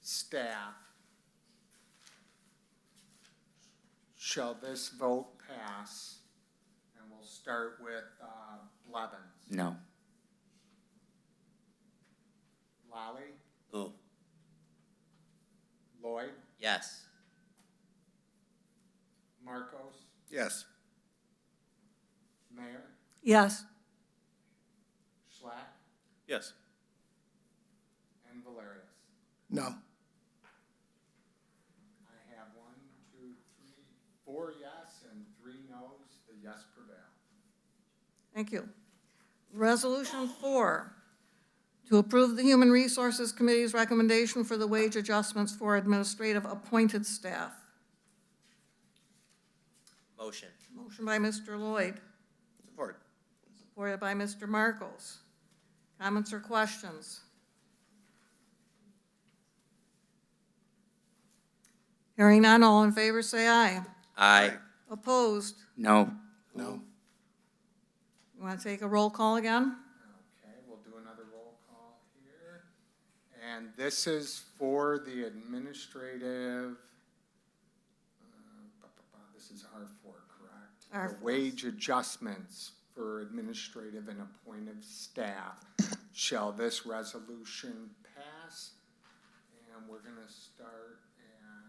staff. Shall this vote pass? And we'll start with uh, Blevins. No. Lally, Oh, Lloyd, Yes. Marcos, yes. Mayor, Yes. Schlack, Yes. and Valerius. No. I have one, two, three, four yes and three no's. The yes prevail. Thank you. Resolution four, to approve the Human Resources Committee's recommendation for the wage adjustments for administrative appointed staff. Motion. Motion by Mr. Lloyd, Support. supported by Mr. Markles. Comments or questions? Hearing none, all in favor say aye. Aye. Opposed? No. No. You want to take a roll call again? Okay, we'll do another roll call here. And this is for the administrative, uh, ba, ba, ba, this is R four, correct? The R4. Wage adjustments for administrative and appointed staff. Shall this resolution pass? And we're gonna start at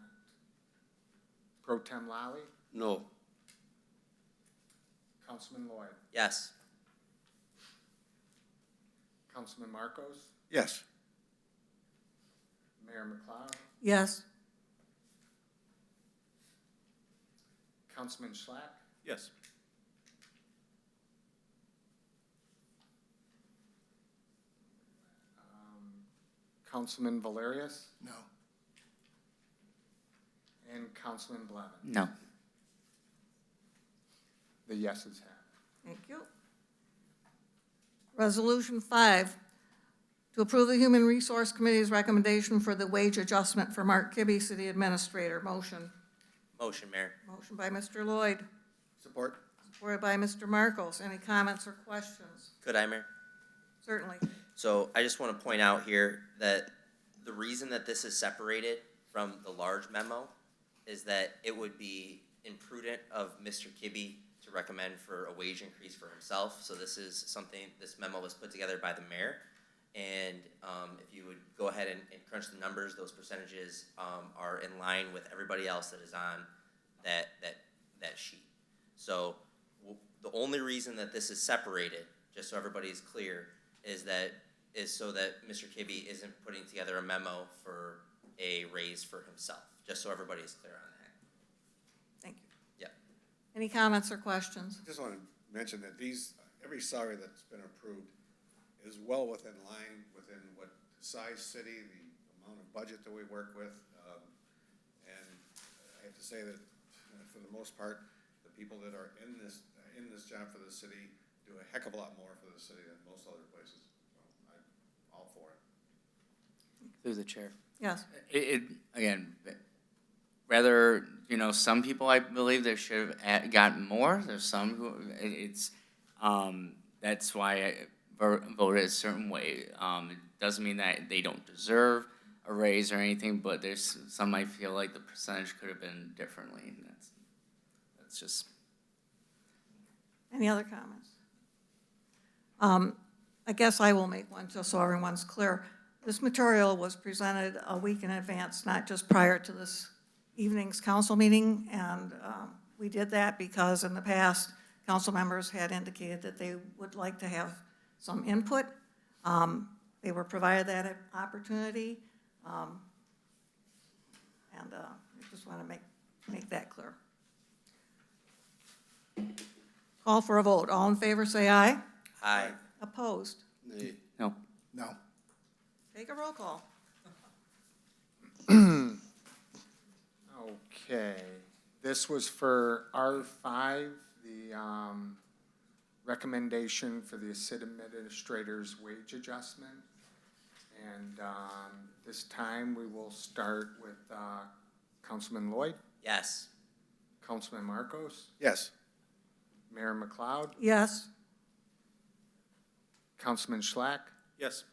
Pro Tem Lally, No. Councilman Lloyd, Yes. Councilman Marcos, Yes. Mayor McLeod, Yes. Councilman Schlack, Yes. Um, Councilman Valerius, No. and Councilman Blevins. No. The yeses have. Thank you. Resolution five, to approve the Human Resource Committee's recommendation for the wage adjustment for Mark Kibbe, City Administrator. Motion. Motion, Mayor. Motion by Mr. Lloyd, Support. supported by Mr. Markles. Any comments or questions? Could I, Mayor? Certainly. So I just want to point out here that the reason that this is separated from the large memo is that it would be imprudent of Mr. Kibbe to recommend for a wage increase for himself. So this is something, this memo was put together by the mayor. And um, if you would go ahead and and crunch the numbers, those percentages um, are in line with everybody else that is on that, that, that sheet. So w- the only reason that this is separated, just so everybody is clear, is that, is so that Mr. Kibbe isn't putting together a memo for a raise for himself, just so everybody is clear on that. Thank you. Yep. Any comments or questions? Just want to mention that these, every salary that's been approved is well within line, within what size city, the amount of budget that we work with. um, And I have to say that, uh, for the most part, the people that are in this, in this job for the city do a heck of a lot more for the city than most other places. So I'm all for it. Through the chair. Yes. It, it, again, rather, you know, some people I believe that should have at- gotten more, there's some who, it, it's, um, that's why I ver- voted a certain way. Um, it doesn't mean that they don't deserve a raise or anything, but there's some I feel like the percentage could have been differently, and that's, that's just. Any other comments? Um, I guess I will make one, just so everyone's clear. This material was presented a week in advance, not just prior to this evening's council meeting, and um, we did that because in the past, council members had indicated that they would like to have some input. Um, They were provided that opportunity, um, and uh, I just want to make, make that clear. Call for a vote. All in favor, say aye. Aye. Opposed? Nay. No. No. Take a roll call. Okay, this was for R five, the, um, recommendation for the city administrator's wage adjustment. And, um, this time we will start with, uh, Councilman Lloyd, Yes. Councilman Marcos, Yes. Mayor McLeod, Yes, Councilman Schlack, Yes.